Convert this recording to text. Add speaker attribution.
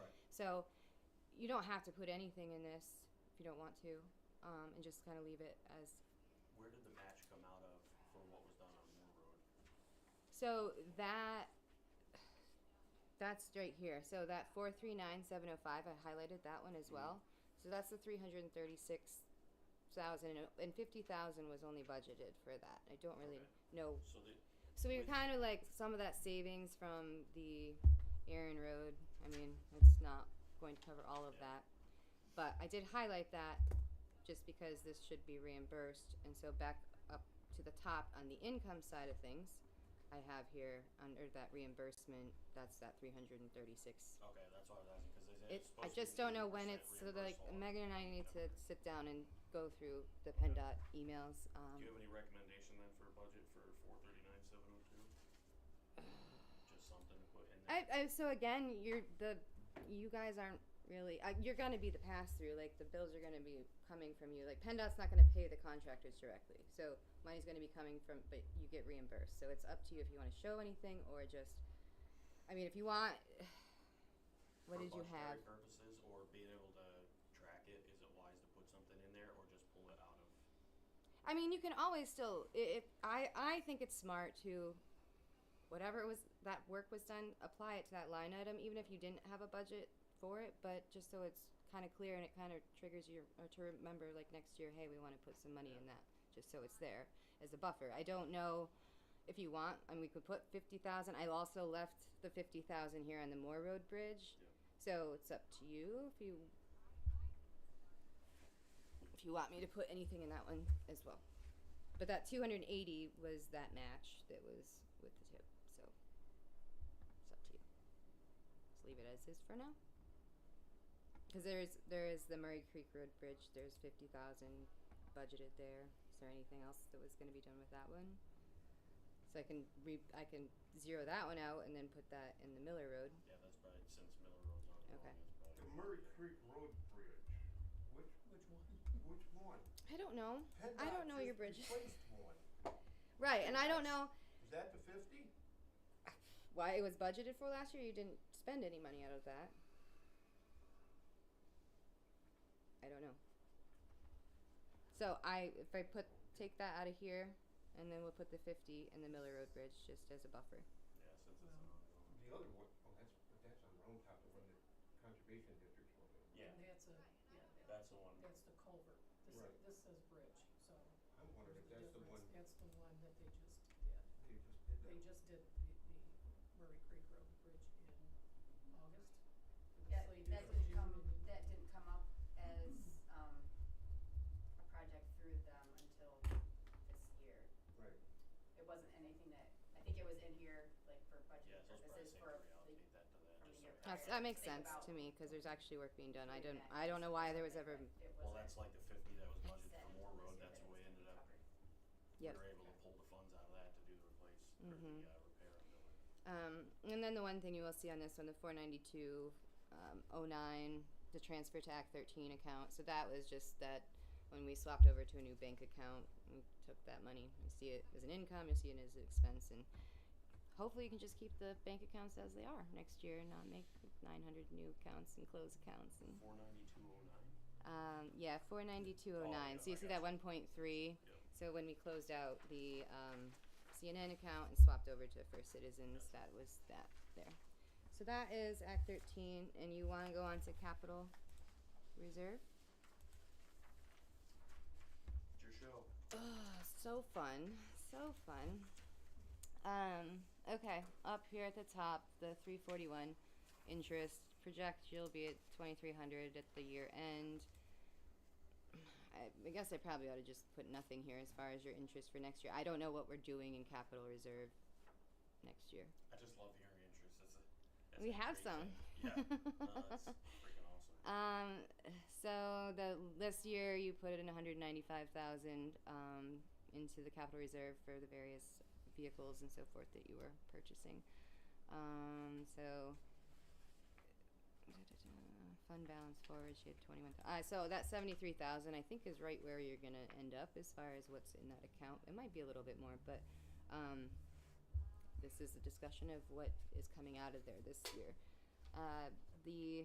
Speaker 1: So you don't have to put anything in this if you don't want to, um, and just kind of leave it as.
Speaker 2: Where did the match come out of for what was done on Moore Road?
Speaker 1: So that that's right here. So that four three nine seven zero five. I highlighted that one as well. So that's the three hundred and thirty six thousand and fifty thousand was only budgeted for that. I don't really
Speaker 2: Okay.
Speaker 1: know
Speaker 2: So the,
Speaker 1: So we were
Speaker 2: Wait.
Speaker 1: kind of like some of that savings from the Aaron Road. I mean, it's not going to cover all of
Speaker 2: Yeah.
Speaker 1: that. But I did highlight that just because this should be reimbursed. And so back up to the top on the income side of things, I have here under that reimbursement, that's that 336.
Speaker 2: okay, that's what I was asking, cause they said it's
Speaker 1: It,
Speaker 2: supposed
Speaker 1: I
Speaker 2: to be
Speaker 1: just don't know when
Speaker 2: 80%
Speaker 1: it's, so like
Speaker 2: reimbursable.
Speaker 1: Megan and I need to
Speaker 2: Okay.
Speaker 1: sit down and go through the PennDOT emails. Um,
Speaker 2: Do you have any recommendation then for a budget for four thirty-nine, seven oh two? Just something to put in
Speaker 1: I,
Speaker 2: there?
Speaker 1: I so again, you're the you guys aren't really uh, you're going to be the pass through. Like the bills are going to be coming from you. Like PennDOT's not going to pay the contractors directly, so money's going to be coming from, but you get reimbursed. So it's up to you if you want to show anything or just. I mean, if you want, what did you have?
Speaker 2: For budgetary purposes or being able to track it, is it wise to put something in there or just pull it out of?
Speaker 1: I mean, you can always still. i- If I, I think it's smart to, whatever it was that work was done, apply it to that line item, even if you didn't have a budget for it. But just so it's kind of clear and it kind of triggers you uh, to remember, like next year, hey, we want to put some money in that, just so it's there as a buffer. I don't know if you want, and we could put fifty thousand. I also left the fifty thousand here on the Moore Road Bridge.
Speaker 2: Yeah.
Speaker 1: So it's up to you if you if you want me to put anything in that one as well. But that 280 was that match that was with the tip. So it's up to you. Just leave it as is for now. Because there is there is the Murray Creek Road Bridge. There's 50,000 budgeted there. Is there anything else that was going to be done with that one? So I can re- I can zero that one out and then put that in the Miller Road.
Speaker 2: Yeah, that's probably since Miller Road's on. it,
Speaker 1: Okay.
Speaker 2: that's
Speaker 3: The
Speaker 2: probably-
Speaker 3: Murray Creek Road Bridge, which,
Speaker 4: Which one?
Speaker 3: which one?
Speaker 1: I don't know. I
Speaker 3: PennDOT
Speaker 1: don't know your
Speaker 3: just
Speaker 1: bridge.
Speaker 3: Replaced one.
Speaker 1: Right, and I don't know
Speaker 3: Is that the fifty?
Speaker 1: why it was budgeted for last year. You didn't spend any money out of that. I don't know. So I, if I put take that out of here, and then we'll put the fifty in the Miller Road Bridge just as a buffer.
Speaker 2: Yeah, since it's an ongoing.
Speaker 3: The other one, oh, that's, but that's on Round Top, the one that Conservation District's one.
Speaker 2: Yeah,
Speaker 4: That's a, yeah,
Speaker 2: that's the one.
Speaker 4: that's the culvert. This,
Speaker 3: Right.
Speaker 4: this says bridge, so.
Speaker 3: I'm wondering if
Speaker 4: there's
Speaker 3: that's the one
Speaker 4: difference. That's the one that they just did.
Speaker 3: they just did
Speaker 4: They
Speaker 3: that.
Speaker 4: just did the, the Murray Creek Road Bridge in August. It was
Speaker 5: That,
Speaker 4: slated
Speaker 5: that
Speaker 4: for
Speaker 5: didn't
Speaker 4: June
Speaker 5: come,
Speaker 4: and-
Speaker 5: that didn't come up as, um, a project through them until this year.
Speaker 3: Right,
Speaker 5: It wasn't anything that, I think it was in here, like, for
Speaker 2: Yeah,
Speaker 5: budget
Speaker 2: so it's probably
Speaker 5: purposes
Speaker 2: safe to
Speaker 5: for, the-
Speaker 2: reallocate that to that,
Speaker 5: from
Speaker 2: just so
Speaker 5: the year
Speaker 2: we
Speaker 1: That's,
Speaker 2: have
Speaker 1: that makes
Speaker 5: Think
Speaker 1: sense to
Speaker 5: about-
Speaker 1: me because there's actually work being done. I
Speaker 5: doing
Speaker 1: don't,
Speaker 5: that
Speaker 1: I don't know why there was
Speaker 5: something,
Speaker 1: ever.
Speaker 5: but It
Speaker 2: Well,
Speaker 5: wasn't
Speaker 2: that's like the fifty that was budgeted
Speaker 5: said
Speaker 2: for Moore
Speaker 5: this
Speaker 2: Road,
Speaker 5: year
Speaker 2: that's the
Speaker 5: that it was
Speaker 2: way it
Speaker 5: gonna
Speaker 2: ended
Speaker 5: be
Speaker 2: up,
Speaker 5: covered.
Speaker 2: we
Speaker 1: Yep.
Speaker 2: were able to pull the funds out of that to do the replace, or
Speaker 1: Mhm.
Speaker 2: the, uh, repair of the building.
Speaker 1: Um, and then the one thing you will see on this one, the 492, um, 09, the transfer to Act 13 account. So that was just that when we swapped over to a new bank account, we took that money. You see it as an income, you see it as an expense, and hopefully you can just keep the bank accounts as they are next year and not make 900 new accounts and close accounts. And
Speaker 2: Four ninety-two oh nine?
Speaker 1: um, yeah, 49209.
Speaker 2: Oh, yeah,
Speaker 1: so you
Speaker 2: I
Speaker 1: see that
Speaker 2: gotcha.
Speaker 1: 1.3.
Speaker 2: Yep.
Speaker 1: So when we closed out the um, CNN account and swapped over to First Citizens, that was that there. So that is Act 13, and you want to go on to capital reserve?
Speaker 2: It's your show.
Speaker 1: Oh, so fun, so fun. Um, okay, up here at the top, the 341 interest project, you'll be at 2300 at the year end. I, I guess I probably ought to just put nothing here as far as your interest for next year. I don't know what we're doing in capital reserve next year.
Speaker 2: I just love hearing interest. It's a, it's
Speaker 1: We
Speaker 2: a
Speaker 1: have
Speaker 2: great
Speaker 1: some.
Speaker 2: thing. Yeah. No, it's freaking awesome.
Speaker 1: Um, so the this year you put in 195,000 um, into the capital reserve for the various vehicles and so forth that you were purchasing. Um, so fund balance forward, you had 21. Uh, so that 73,000 I think is right where you're gonna end up as far as what's in that account. It might be a little bit more, but um, this is a discussion of what is coming out of there this year. Uh, the